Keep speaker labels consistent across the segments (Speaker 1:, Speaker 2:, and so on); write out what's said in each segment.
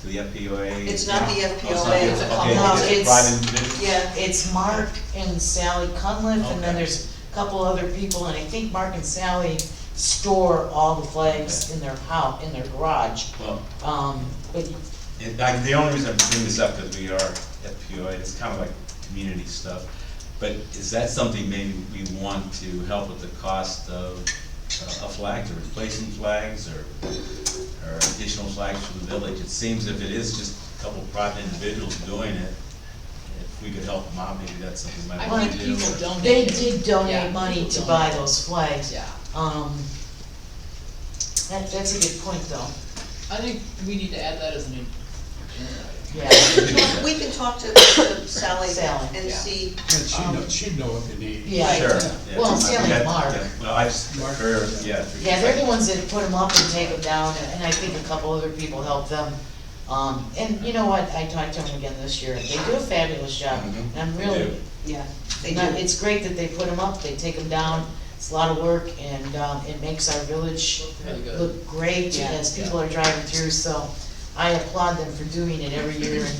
Speaker 1: to the FPOA?
Speaker 2: It's not the
Speaker 1: Oh, it's not
Speaker 2: FPOA, it's a
Speaker 1: okay,
Speaker 2: complex.
Speaker 1: is it
Speaker 3: It's-
Speaker 1: private individual?
Speaker 2: Yeah,
Speaker 3: It's Mark and Sally Cunliffe, and then
Speaker 1: Okay.
Speaker 3: there's a couple other people, and I think Mark and Sally store all the flags in their house, in their garage.
Speaker 1: Well,
Speaker 3: Um, but
Speaker 1: it- I- the only reason I'm bringing this up, because we are FPOA, it's kind of like community stuff, but is that something maybe we want to help with the cost of uh, a flag, or replacing flags, or, or additional flags from the village? It seems if it is just a couple private individuals doing it, if we could help them out, maybe that's something we might
Speaker 3: I
Speaker 1: want to
Speaker 3: think
Speaker 1: do.
Speaker 4: people
Speaker 1: or-
Speaker 4: don't-
Speaker 3: they did
Speaker 4: Yeah,
Speaker 3: donate money
Speaker 4: people
Speaker 3: to buy
Speaker 4: donate.
Speaker 3: those flags.
Speaker 4: Yeah,
Speaker 3: Um, that, that's a good point, though,
Speaker 4: I think we need to add that as an agenda item.
Speaker 3: yeah.
Speaker 2: we can talk- we can talk to to Sally
Speaker 3: Sally,
Speaker 2: and
Speaker 4: yeah.
Speaker 2: see,
Speaker 5: And she'd know, she'd know what they need.
Speaker 3: Yeah.
Speaker 1: Sure. yeah.
Speaker 3: Well, Sally and
Speaker 1: Yeah,
Speaker 3: Mark.
Speaker 1: yeah. Well, I just,
Speaker 5: Mark.
Speaker 1: or, yeah. through-
Speaker 3: Yeah, they're the ones that put them up and take them down, and I think a couple other people helped them. Um, and you know what, I talked to them again this year, they do a fabulous job,
Speaker 1: Mhm.
Speaker 3: and I'm
Speaker 1: They
Speaker 3: really,
Speaker 1: do.
Speaker 3: yeah.
Speaker 2: They
Speaker 3: Not-
Speaker 2: do.
Speaker 3: It's great that they put them up, they take them down, it's a lot of work, and, um, it makes our village
Speaker 4: Really good.
Speaker 3: look great
Speaker 4: Yeah.
Speaker 3: as people are driving through, so I applaud them for doing it every year, and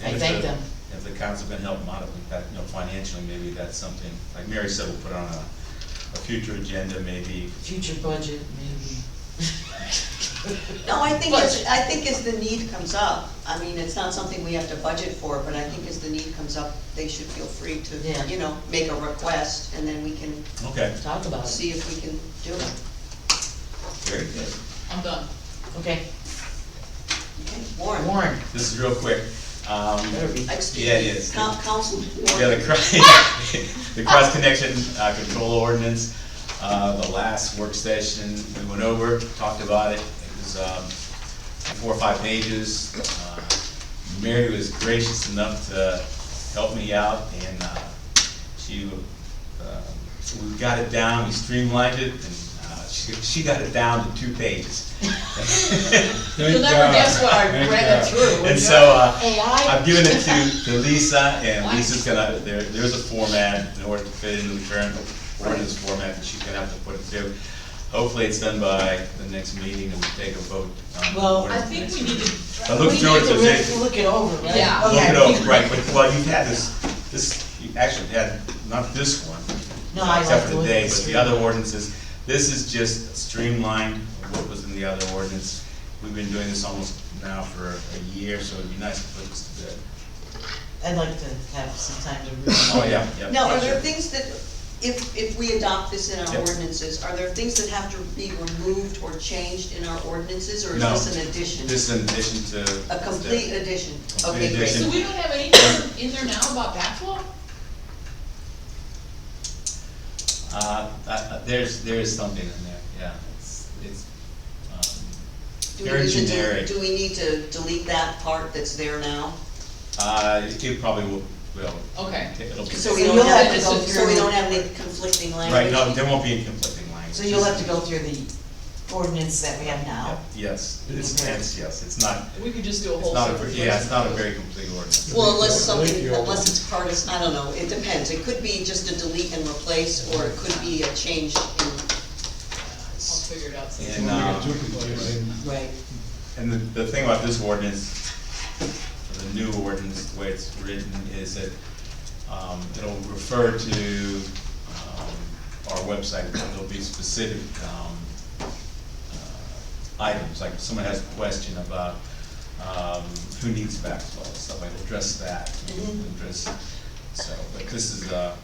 Speaker 1: And
Speaker 3: I
Speaker 1: if
Speaker 3: thank
Speaker 1: the-
Speaker 3: them.
Speaker 1: If the council can help modify that, you know, financially, maybe that's something, like Mary said, we'll put on a, a future agenda, maybe.
Speaker 3: Future budget, maybe.
Speaker 2: no, I think, as- I think as the need comes up, I mean, it's not something we have to budget for, but I think as the need comes up, they should feel free
Speaker 3: Yeah.
Speaker 2: to, you know, make a request, and then we can
Speaker 1: Okay,
Speaker 3: Talk about it,
Speaker 2: see if we can do it.
Speaker 1: very good.
Speaker 4: I'm done.
Speaker 3: okay,
Speaker 2: Okay, Warren?
Speaker 3: Warren,
Speaker 1: This is real quick. Um,
Speaker 3: better be.
Speaker 2: Excuse
Speaker 1: Yeah,
Speaker 2: me,
Speaker 1: it is.
Speaker 2: Coun- Councilman
Speaker 1: Yeah,
Speaker 2: Warren?
Speaker 1: the cross, the cross connection, uh, control ordinance, uh, the last work session, we went over, talked about it, it was, um, four or five pages. Uh, Mary was gracious enough to help me out, and, uh, she, uh, we got it down, we streamlined it, and, uh, she, she got it down to two pages.
Speaker 4: You'll never guess what I read it through.
Speaker 1: And so, uh,
Speaker 3: AI.
Speaker 1: I've given it to, to Lisa, and Lisa's gonna, there, there's a format in order to fit into the current ordinance format that she's gonna have to put it through. Hopefully it's done by the next meeting and we take a vote. on the
Speaker 3: Well,
Speaker 4: I
Speaker 1: ordinance
Speaker 4: think
Speaker 1: next
Speaker 4: we need
Speaker 1: week.
Speaker 4: to,
Speaker 1: I looked
Speaker 3: We
Speaker 1: through
Speaker 3: need
Speaker 1: it,
Speaker 3: to
Speaker 1: so
Speaker 3: really
Speaker 1: they-
Speaker 3: Look it over, right?
Speaker 4: Yeah.
Speaker 1: look it
Speaker 3: Okay.
Speaker 1: over, right, but, well, you've had this, this, you actually had, not this one.
Speaker 3: No, I like
Speaker 1: Except
Speaker 3: the
Speaker 1: for
Speaker 3: way
Speaker 1: today,
Speaker 3: it's
Speaker 1: but the
Speaker 3: written.
Speaker 1: other ordinances, this is just streamlined of what was in the other ordinance. We've been doing this almost now for a year, so it'd be nice to put this to bed.
Speaker 3: I'd like to have some time to read.
Speaker 1: Oh, yeah, yeah.
Speaker 2: Now, are
Speaker 1: sure.
Speaker 2: there things that, if, if we adopt this in
Speaker 1: Yeah.
Speaker 2: our ordinances, are there things that have to be removed or changed in our ordinances, or is
Speaker 1: No.
Speaker 2: this an addition?
Speaker 1: This is in addition to.
Speaker 2: A complete addition?
Speaker 1: Complete
Speaker 2: Okay, great.
Speaker 1: addition.
Speaker 4: so we don't have anything in there now about backflow?
Speaker 1: Uh, uh, there's, there is something in there, yeah, it's, it's, um,
Speaker 2: Do we
Speaker 1: very
Speaker 2: need to del-
Speaker 1: generic.
Speaker 2: Do we need to delete that part that's there now?
Speaker 1: Uh, it probably will, will.
Speaker 4: Okay.
Speaker 1: It'll be.
Speaker 2: So we
Speaker 3: So
Speaker 2: don't
Speaker 3: you'll
Speaker 2: have,
Speaker 3: have to go
Speaker 2: so we
Speaker 3: through-
Speaker 2: don't have any conflicting
Speaker 1: Right,
Speaker 2: language?
Speaker 1: no, there won't be any conflicting language.
Speaker 3: So you'll have to go through the ordinance that we have now.
Speaker 1: Yeah, Yes, it's,
Speaker 3: Okay.
Speaker 1: it's, yes, it's not,
Speaker 4: We could just do a
Speaker 1: it's
Speaker 4: whole
Speaker 1: not a,
Speaker 4: separate.
Speaker 1: very- yeah, it's not a very complete ordinance.
Speaker 2: Well, unless something,
Speaker 5: Delete your-
Speaker 2: unless it's part of, I don't know, it depends. It could be just a delete and replace, or it could be a change in,
Speaker 4: I'll figure it out.
Speaker 1: Yeah.
Speaker 4: soon.
Speaker 5: And, uh,
Speaker 3: Right.
Speaker 1: And the, the thing about this ordinance, the new ordinance, the way it's written, is that, um, it'll refer to, um, our website, but there'll be specific, um, uh, items, like if someone has a question about, um, who needs backflow, stuff like, we'll address that, we'll address, so, but this is, uh,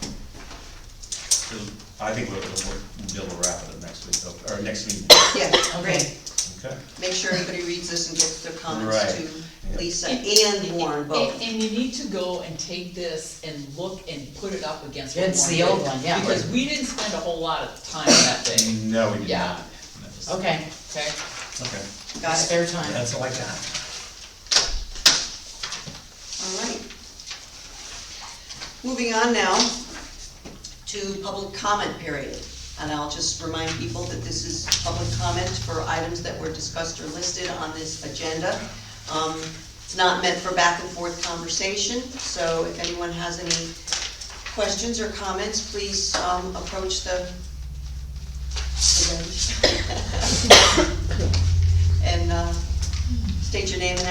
Speaker 1: it'll- I think we'll, we'll, we'll wrap it up next week, though, or next meeting,
Speaker 2: yeah,
Speaker 3: Okay,
Speaker 1: okay?
Speaker 2: make sure everybody reads this and gets their comments
Speaker 1: Right.
Speaker 2: to
Speaker 1: Yeah.
Speaker 2: Lisa and Warren
Speaker 4: And-
Speaker 2: both.
Speaker 4: And you need to go and take this and look and put it up against what Warren
Speaker 3: Against the old
Speaker 4: did,
Speaker 3: one, yeah.
Speaker 4: Because we didn't spend a whole lot of time on that thing,
Speaker 1: No, we did
Speaker 4: Yeah.
Speaker 1: not. No.
Speaker 3: okay,
Speaker 4: okay?
Speaker 1: Okay,
Speaker 2: Got it?
Speaker 3: spare time.
Speaker 1: that's all I got.
Speaker 2: All right. Moving on now to public comment period. And I'll just remind people that this is public comment for items that were discussed or listed on this agenda. Um, It's not meant for back and forth conversation, so if anyone has any questions or comments, please um, approach the the bench. And uh, state your name and